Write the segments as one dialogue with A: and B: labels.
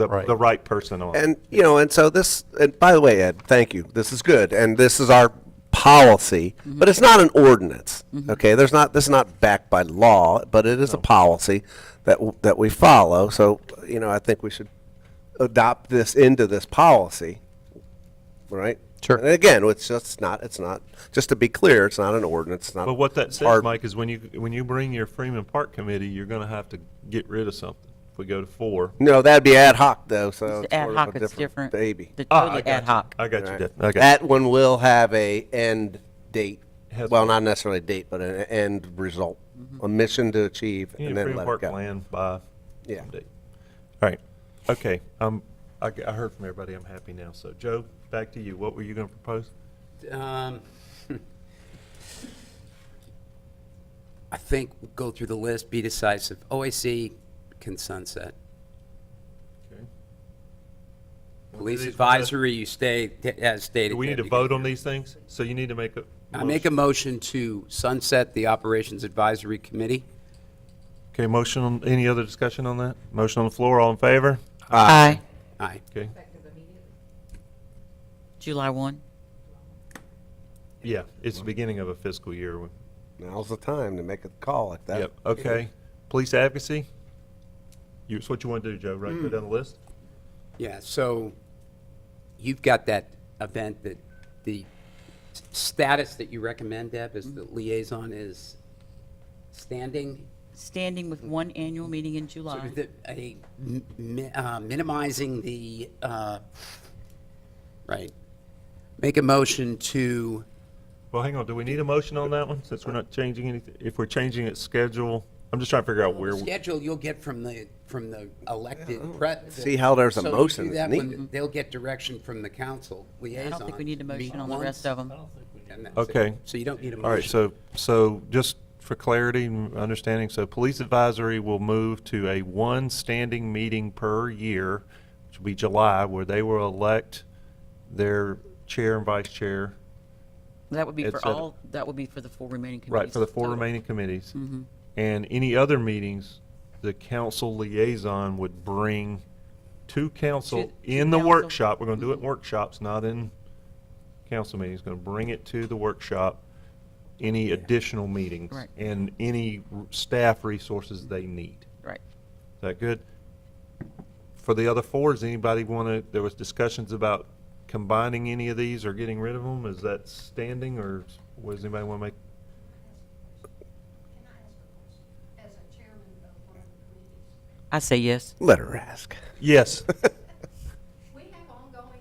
A: the,
B: Right.
A: the right person on.
C: And, you know, and so this, and by the way, Ed, thank you. This is good. And this is our policy, but it's not an ordinance. Okay? There's not, this is not backed by law, but it is a policy that, w- that we follow. So, you know, I think we should adopt this into this policy, right?
B: Sure.
C: And again, it's just not, it's not, just to be clear, it's not an ordinance. It's not.
A: But what that says,
C: hard-
A: Mike, is when you when you bring your Freeman Park committee, you're going to have to get rid of something. If we go to four,
C: No, that'd be ad hoc though, so.
D: Ad
C: sort of
D: hoc
C: a
D: is different.
C: Baby.
D: They're
A: Ah, I
D: Totally
A: got
D: ad
A: you.
D: hoc.
A: I got you.
C: Right.
A: Def- okay.
C: That one will have a end date.
A: Has-
C: Well, not necessarily a date, but an end result,
A: Mm-hmm.
C: a mission to achieve,
A: You
C: and
A: need
C: then
A: Freeman
C: let it
A: Park
C: go.
A: land by.
C: Yeah.
A: date. All right. Okay. Um, I, g- I heard from everybody. I'm happy now. So, Joe, back to you. What were you going to propose?
E: Um, I think go through the list, be decisive. OAC can sunset.
A: Okay.
E: Police
A: these-
E: advisory, you stay t- as stated.
A: Do we need to
E: Debbie.
A: vote on these things? So you need to make a.
E: I make a motion to sunset the Operations Advisory Committee.
A: Okay, motion, on any other discussion on that? Motion on the floor, all in favor?
D: Aye.
E: Aye.
A: Okay,
D: July 1.
A: yeah, it's the beginning of a fiscal year.
C: Now's the time to make a call like that.
A: Yep, okay. Police advocacy? You, it's what you want to do, Joe, right? Go down the list?
E: Yeah, so you've got that event that the s- status that you recommend, Deb, is
A: Mm-hmm.
E: the liaison is standing
D: Standing with one annual meeting in
E: So
D: July.
E: is it a mi- mi- uh, minimizing the, uh, right, make a motion to,
A: Well, hang on, do we need a motion on that one, since we're not changing anything? If we're changing its schedule, I'm just trying to figure out where, we-
E: schedule you'll get from the, from the elected prep.
C: See how there's a
E: So you
C: motion
E: do
C: that's
E: that when
C: needed.
E: They'll get direction from the council liaison.
D: I don't think we need a
E: Meet
D: motion on the
E: once,
D: rest of them.
E: and that's it.
A: Okay.
E: So you don't need a motion.
A: all right, so, so just for clarity and understanding, so police advisory will move to a one standing meeting per year, which will be July, where they will elect their chair and vice chair.
D: That would be
A: Ed
D: for
A: said it.
D: all, that would be for the four remaining committees. Mm-hmm.
A: Right, for the four
D: total.
A: remaining committees. And any other meetings, the council liaison would bring to council
D: To- to
A: in the
D: council. Mm-hmm.
A: workshop. We're going to do it in workshops, not in council meetings. Going to bring it to the workshop, any additional meetings
D: Right.
A: and any r- staff resources they need.
D: Right.
A: Is that good? For the other four, does anybody want to, there was discussions about combining any of these or getting rid of them? Is that standing or does anybody want to make?
F: Can I ask a question? As a chairman of one of the committees,
D: I say yes.
C: Let her ask.
A: Yes.
F: we have ongoing,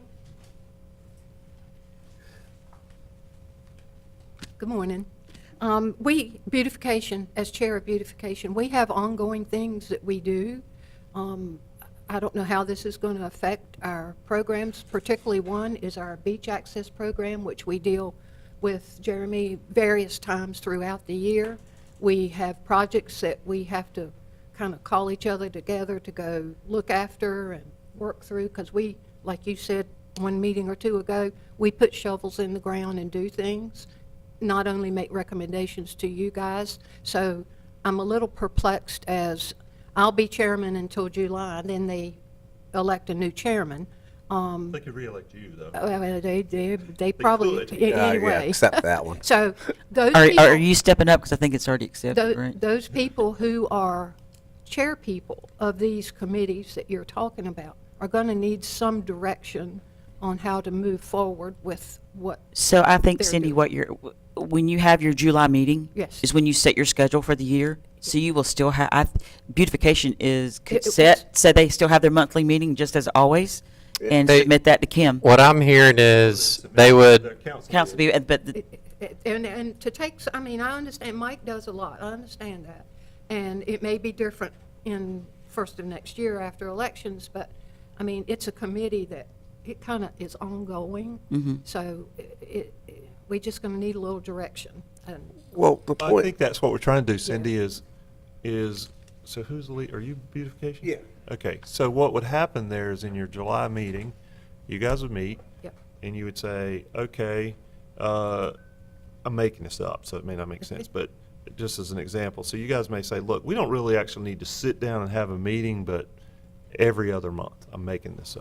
G: Good morning. Um, We, beautification, as chair of beautification, we have ongoing things that we do. Um, I don't know how this is going to affect our programs, particularly one is our beach access program, which we deal with Jeremy various times throughout the year. We have projects that we have to kind of call each other together to go look after and work through, because we, like you said one meeting or two ago, we put shovels in the ground and do things not only make recommendations to you guys, so I'm a little perplexed as I'll be chairman until July, then they elect a new chairman. Um,
A: They could reelect you, though.
G: well, They, they, they probably,
A: could.
G: a-
C: Uh, yeah,
G: anyway.
C: Accept that one.
G: So those
D: Are, are
G: people,
D: you stepping up? Because I think it's already
G: tho-
D: accepted, right?
G: those people who are chair people of these committees that you're talking about are going to need some direction on how to move forward with what
D: So I think
G: They're
D: Cindy,
G: doing-
D: what you're, w- when you have your July meeting.
G: Yes.
D: Is when you set your schedule for the year. So you will still have, I, beautification is c-
G: It- it
D: set, so they still have their monthly meeting just as always and
B: They-
D: submit that to Kim.
B: What I'm hearing is they would,
D: Council, be- but the-
G: And, and to take, s- I mean, I understand, Mike does a lot, I understand that. And it may be different in first of next year after elections, but, I mean, it's a committee that, it kind of is ongoing. So it, it, we just going to need a little direction. And
C: Well, the
A: I
C: point,
A: think that's what we're trying to do, Cindy, is, is, so who's the lead, are you beautification?
C: Yeah.
A: Okay, so what would happen there is in your July meeting, you guys would meet.
G: Yep.
A: And you would say, okay, uh, I'm making this up, so it may not make sense, but just as an example. So you guys may say, look, we don't really actually need to sit down and have a meeting, but every other month. I'm making this up.